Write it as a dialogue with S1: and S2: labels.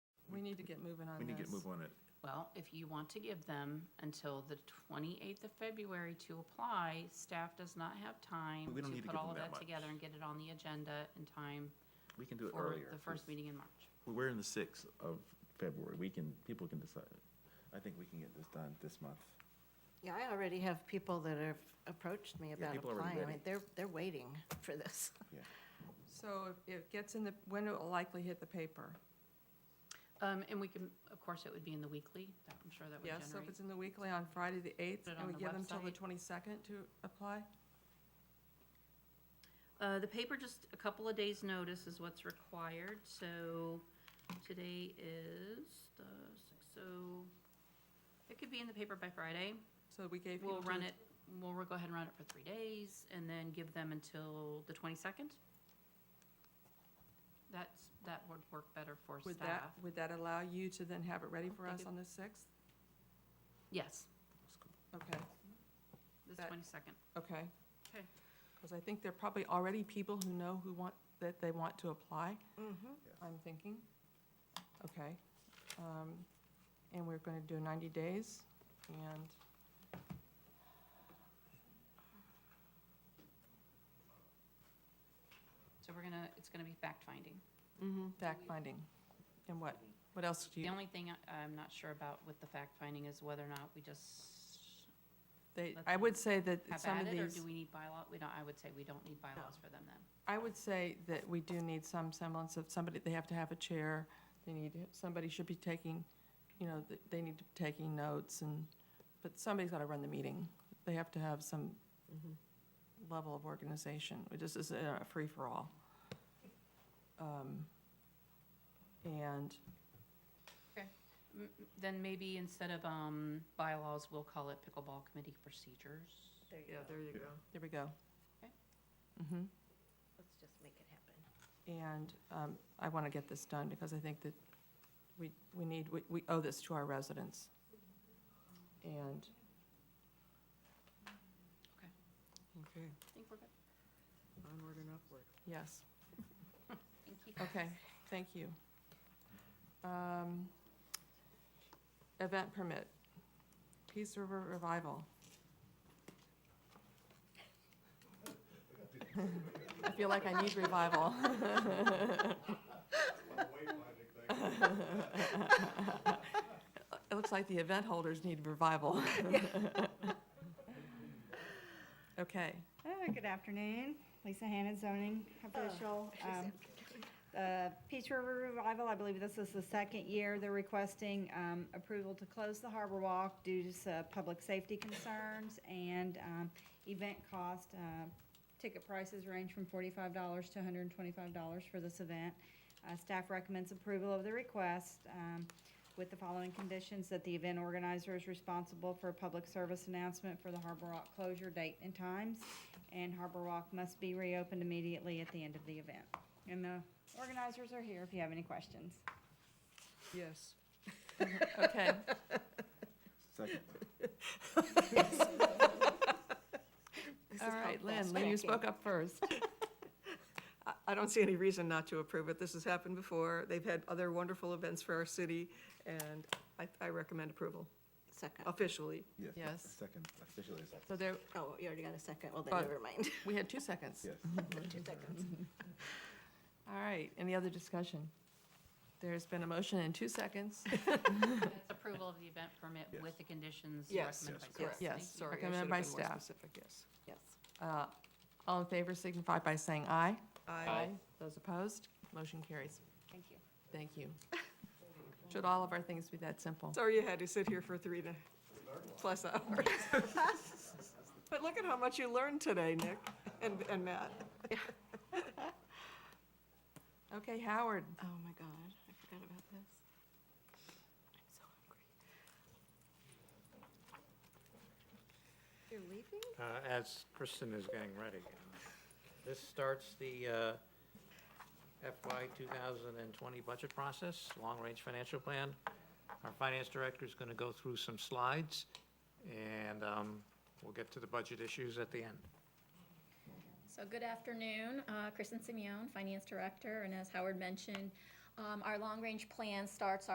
S1: need to get moving on
S2: We
S1: this.
S2: need to get move on it.
S3: Well, if you want to give them until the 28th of February to apply, staff does not have time
S2: But we don't need
S3: to
S2: to
S3: put
S2: give
S3: all of
S2: them that
S3: that together
S2: much.
S3: and get it on the agenda in time
S2: We can do it
S3: for
S2: earlier.
S3: the first meeting in March.
S2: We're in the sixth of February. We can, people can decide. I think we can get this done this month.
S4: Yeah, I already have people that have approached me about
S2: people are already
S4: applying. I
S2: ready.
S4: mean, they're, they're waiting for this.
S1: So if it gets in the, when it will likely hit the paper?
S3: Um, And we can, of course, it would be in the weekly, that- I'm sure that would
S1: Yes, so if
S3: generate.
S1: it's in the weekly on Friday, the eighth,
S3: Put it
S1: and we
S3: on the
S1: give them till the
S3: website.
S1: twenty-second to apply?
S3: Uh, The paper, just a couple of days' notice is what's required, so today is the, six- so it could be in the paper by Friday.
S1: So we gave people.
S3: We'll run
S1: till
S3: it, we'll go ahead and run it for three days and then give them until the twenty-second. That's, that would work better for
S1: the- Would that,
S3: staff.
S1: would that allow you to then have it ready for
S3: They
S1: us
S3: could-
S1: on the sixth?
S3: Yes,
S1: Okay,
S3: this
S1: That-
S3: twenty-second.
S1: okay.
S3: Okay.
S1: Because I think there are probably already people who know who want, that they want to apply,
S4: Mhm.
S1: I'm thinking. Okay. um, And we're going to do 90 days, and
S3: So we're gonna, it's gonna be fact-finding.
S1: fact-finding. And what, what else do
S3: The
S1: you,
S3: only thing I- I'm not sure about with the fact-finding is whether or not we just
S1: they,
S3: let
S1: I
S3: them
S1: would say that
S3: have
S1: some
S3: at
S1: of
S3: it, or
S1: these,
S3: do we need bylaw? We don't, I would say we don't need bylaws for them then.
S1: I would say that we do need some semblance of somebody, they have to have a chair, they need, to- somebody should be taking, you know, th- they need to be taking notes and, but somebody's got to run the meeting. They have to have some
S3: Mm-hmm.
S1: level of organization. It just isn't a free-for-all. Um, And
S3: M- m- Then maybe instead of, um, bylaws, we'll call it pickleball committee procedures.
S4: There you
S5: Yeah,
S4: go.
S5: there you go.
S1: There we go.
S3: Okay.
S1: Mhm.
S4: Let's just make it happen.
S1: And um, I want to get this done because I think that we, we need, we- we owe this to our residents. And
S5: Okay,
S3: I think we're good.
S5: onward and upward.
S1: yes,
S3: Thank you.
S1: okay, thank you. Um, Event permit, Peace River Revival. I feel like I need revival. It looks like the event holders need revival. Okay,
S6: Uh, Good afternoon, Lisa Hannon, zoning official. Um, The Peach River Revival, I believe this is the second year they're requesting um, approval to close the Harbor Walk due to some public safety concerns and um, event cost. Uh, Ticket prices range from forty-five dollars to hundred and twenty-five dollars for this event. Uh, Staff recommends approval of the request um, with the following conditions, that the event organizer is responsible for a public service announcement for the Harbor Rock closure date and times, and Harbor Rock must be reopened immediately at the end of the event. And the organizers are here if you have any questions.
S5: Yes.
S1: okay.
S2: Second.
S1: All right, Lynn, Lynn, you
S4: thinking.
S1: spoke up first.
S5: I, I don't see any reason not to approve it. This has happened before. They've had other wonderful events for our city, and I, I recommend approval
S4: Second.
S5: officially.
S1: Yes.
S2: Second, officially second.
S1: So there,
S4: Oh, you already got a second. Well, then
S1: Oh.
S4: never mind.
S1: we had two seconds.
S2: Yes.
S4: Two seconds.
S1: All right, any other discussion? There's been a motion in two seconds.
S3: That's approval of the event permit with
S2: Yes.
S3: the conditions
S5: Yes,
S3: recommended by
S2: yes,
S3: staff.
S5: correct.
S1: Yes,
S3: Thank you.
S5: Sorry, I should
S1: Recommended
S5: have been
S1: by
S5: more
S1: staff.
S5: specific, yes.
S4: Yes.
S1: Uh, All in favor signify by saying aye.
S5: I
S1: Those opposed, motion carries.
S6: Thank you.
S1: Thank you. Should all of our things be that simple?
S5: Sorry you had to sit here for three and a plus hours. But look at how much you learned today, Nick and, and Matt.
S1: Okay, Howard,
S4: Oh, my God. I forgot about this. I'm so hungry. You're leaving?
S7: Uh, as Kristen is getting ready. This starts the uh, FY 2020 budget process, long-range financial plan. Our finance director is going to go through some slides, and um, we'll get to the budget issues at the end.
S8: So good afternoon, Uh, Kristen Simeon, Finance Director, and as Howard mentioned, um, our long-range plan starts